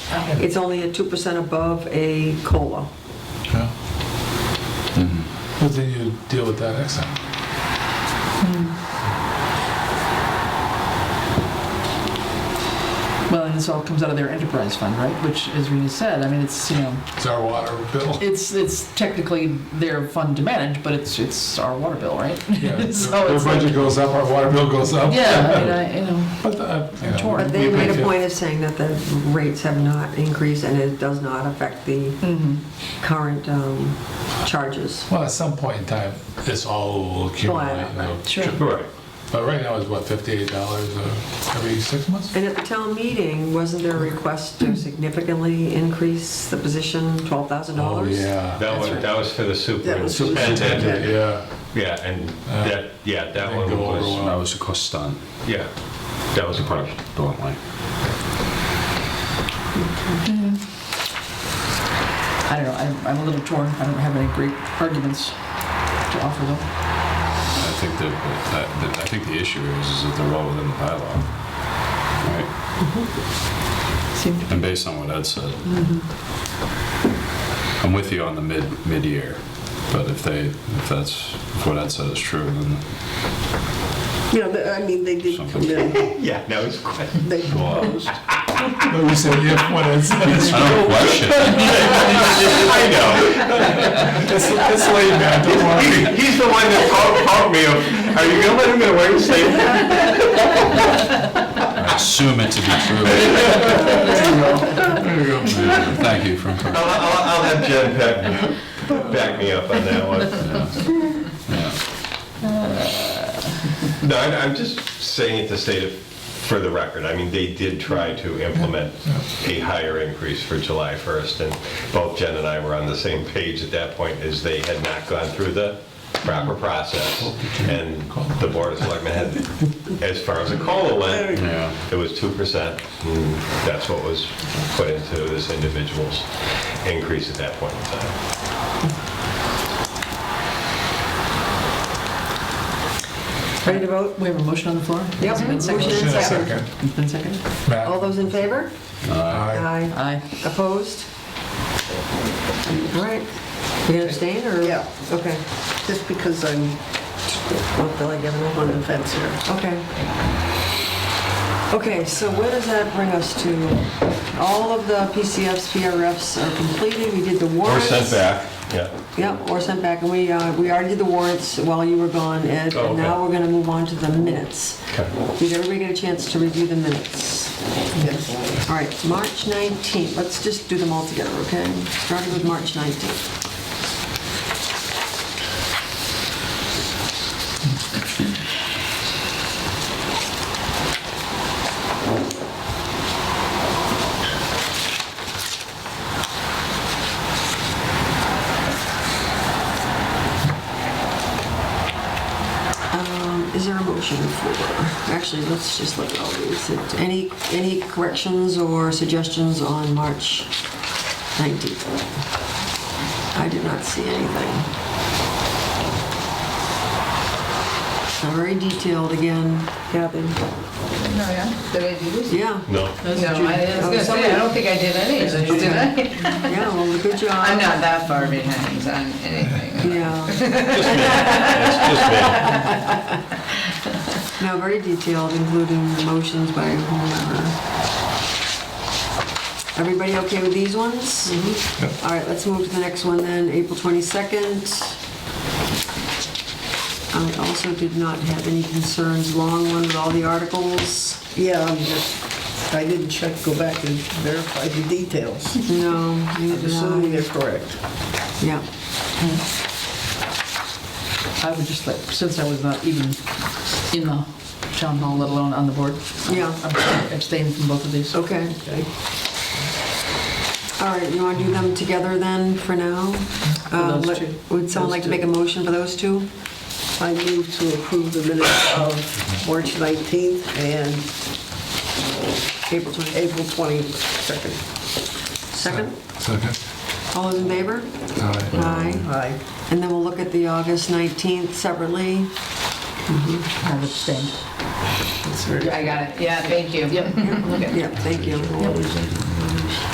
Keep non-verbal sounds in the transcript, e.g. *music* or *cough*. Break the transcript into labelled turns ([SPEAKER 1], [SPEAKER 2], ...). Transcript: [SPEAKER 1] It's only at 2% above a COLA.
[SPEAKER 2] Yeah.
[SPEAKER 3] Mm-hmm.
[SPEAKER 2] But then you deal with that next time.
[SPEAKER 3] Well, and this all comes out of their enterprise fund, right? Which, as Rena said, I mean, it's, you know,
[SPEAKER 2] It's our water bill.
[SPEAKER 3] *laughs* it's, it's technically their fund to manage, but it's, it's our water bill, right?
[SPEAKER 2] Yeah.
[SPEAKER 3] *laughs* So
[SPEAKER 2] Their
[SPEAKER 3] it's like-
[SPEAKER 2] budget goes up, our water bill goes up.
[SPEAKER 3] Yeah, I mean, I, you know,
[SPEAKER 2] But, uh, you know,
[SPEAKER 3] Torn.
[SPEAKER 1] But they
[SPEAKER 2] we
[SPEAKER 1] made
[SPEAKER 2] pay
[SPEAKER 1] a point of saying that the rates have not increased and it does not affect the
[SPEAKER 3] mhm.
[SPEAKER 1] current um, charges.
[SPEAKER 2] fif- Well, at some point in time, it's all accumulated. you know.
[SPEAKER 3] Sure.
[SPEAKER 4] Right.
[SPEAKER 2] But right now, it's what, $58 uh, every six months?
[SPEAKER 1] And at the town meeting, wasn't there a request to significantly increase the position, $12,000?
[SPEAKER 2] Oh, yeah.
[SPEAKER 4] That
[SPEAKER 1] That's
[SPEAKER 4] was,
[SPEAKER 1] right.
[SPEAKER 4] that was for the
[SPEAKER 1] was
[SPEAKER 4] superintendent.
[SPEAKER 1] superintendent.
[SPEAKER 2] Yeah.
[SPEAKER 4] Yeah, and
[SPEAKER 2] Uh,
[SPEAKER 4] that, yeah, that
[SPEAKER 2] didn't
[SPEAKER 4] one
[SPEAKER 2] go over well.
[SPEAKER 4] was,
[SPEAKER 5] That was a cost stunt,
[SPEAKER 4] yeah, that was a question.
[SPEAKER 5] bluntly.
[SPEAKER 3] I don't know, I'm, I'm a little torn, I don't have any great arguments to offer though.
[SPEAKER 5] I think that, that- that- I think the issue is, is that they're well within the bylaw. Right?
[SPEAKER 3] Seem to
[SPEAKER 5] And based on what Ed said. I'm with you on the mid, mid-year, but if they, if that's, if what Ed said is true, then
[SPEAKER 6] You know, the- I mean, they did come in,
[SPEAKER 4] *laughs* Yeah, that was a *laughs* question.
[SPEAKER 6] they proposed,
[SPEAKER 2] But we said, yeah, when it's, it's
[SPEAKER 5] I don't question it.
[SPEAKER 4] *laughs* I know. *laughs*
[SPEAKER 2] it's laid back, don't worry.
[SPEAKER 4] He- He's the one that called, called me, of, are you gonna let him get away with *laughs* saying that?
[SPEAKER 5] I assume it to be true.
[SPEAKER 2] There you go.
[SPEAKER 5] Thank you for,
[SPEAKER 4] I'll, I'll, I'll have Jen back, back me up on that one.
[SPEAKER 5] yeah.
[SPEAKER 4] No, I- I'm just saying it to state it for the record. I mean, they did try to implement a higher increase for July 1st, and both Jen and I were on the same page at that point, is they had not gone through the proper process. And the Board of Selectmen had, as far as the COLA went,
[SPEAKER 5] Yeah.
[SPEAKER 4] it was 2%. and That's what was put into this individual's increase at that point in time.
[SPEAKER 1] Ready to vote?
[SPEAKER 3] We have a motion on the floor?
[SPEAKER 1] Yep.
[SPEAKER 3] *laughs* It's Oh, been
[SPEAKER 1] Motion
[SPEAKER 2] *laughs*
[SPEAKER 3] seconded.
[SPEAKER 2] Motion
[SPEAKER 1] and
[SPEAKER 2] in a
[SPEAKER 1] second.
[SPEAKER 2] second.
[SPEAKER 3] It's been seconded?
[SPEAKER 2] Matt?
[SPEAKER 1] All those in favor?
[SPEAKER 2] Aye.
[SPEAKER 1] Aye.
[SPEAKER 3] Aye.
[SPEAKER 1] Opposed? All right. You gonna abstain or?
[SPEAKER 6] Yeah.
[SPEAKER 1] Okay.
[SPEAKER 6] just because I'm
[SPEAKER 1] Don't feel like giving up
[SPEAKER 6] on
[SPEAKER 1] on
[SPEAKER 6] the
[SPEAKER 1] it.
[SPEAKER 6] fence here.
[SPEAKER 1] Okay. Okay, so where does that bring us to? All of the PCFs, PRFs are completed. We did the
[SPEAKER 4] Or
[SPEAKER 1] warrants.
[SPEAKER 4] sent back, yeah.
[SPEAKER 1] Yep, or sent back. And we, uh, we already did the warrants while you were gone, Ed. And
[SPEAKER 4] Oh, okay.
[SPEAKER 1] now we're gonna move on to the minutes.
[SPEAKER 4] Okay.
[SPEAKER 1] Did everybody get a chance to review the minutes? Yes. All right, March 19th. Let's just do them all together, okay? Starting with March 19th. Is there a motion for, actually, let's just look at all these. Any, any corrections or suggestions on March 19th? I did not see anything. Very detailed again, Gavin.
[SPEAKER 7] No, yeah, did I do this?
[SPEAKER 1] Yeah,
[SPEAKER 4] No.
[SPEAKER 7] No, I I was gonna say, I don't think I did any of this, did I?
[SPEAKER 1] yeah, well, good job.
[SPEAKER 7] *laughs* I'm not that far behind on anything.
[SPEAKER 1] Yeah,
[SPEAKER 4] It's just me.
[SPEAKER 1] no, very detailed, including the motions by whomever. Everybody okay with these ones? All right, let's move to the next one then, April 22nd. I also did not have any concerns, long one with all the articles.
[SPEAKER 6] Yeah, I'm just, I didn't check, go back and verify the details.
[SPEAKER 1] No, you
[SPEAKER 6] I'm
[SPEAKER 1] did
[SPEAKER 6] assuming they're
[SPEAKER 1] not.
[SPEAKER 6] correct.
[SPEAKER 1] Yeah,
[SPEAKER 3] I would just like, since I was not even in the town hall, let alone on the board.
[SPEAKER 1] Yeah.
[SPEAKER 3] I abstained from both of these.
[SPEAKER 1] okay. All right, you want to do them together then for now? Uh,
[SPEAKER 3] those
[SPEAKER 1] let-
[SPEAKER 3] two.
[SPEAKER 1] Would someone
[SPEAKER 6] Those
[SPEAKER 1] like to
[SPEAKER 6] two.
[SPEAKER 1] make a motion for those two?
[SPEAKER 6] I move to approve the minutes of March 19th and
[SPEAKER 1] April 22nd.
[SPEAKER 6] April 22nd.
[SPEAKER 1] Second?
[SPEAKER 2] Second.
[SPEAKER 1] All those in favor?
[SPEAKER 2] Aye.
[SPEAKER 1] Aye.
[SPEAKER 6] Aye.
[SPEAKER 1] And then we'll look at the August 19th separately.
[SPEAKER 3] I abstained. *laughs*
[SPEAKER 7] I got it, yeah, thank you. Yep.
[SPEAKER 1] Yeah, thank you.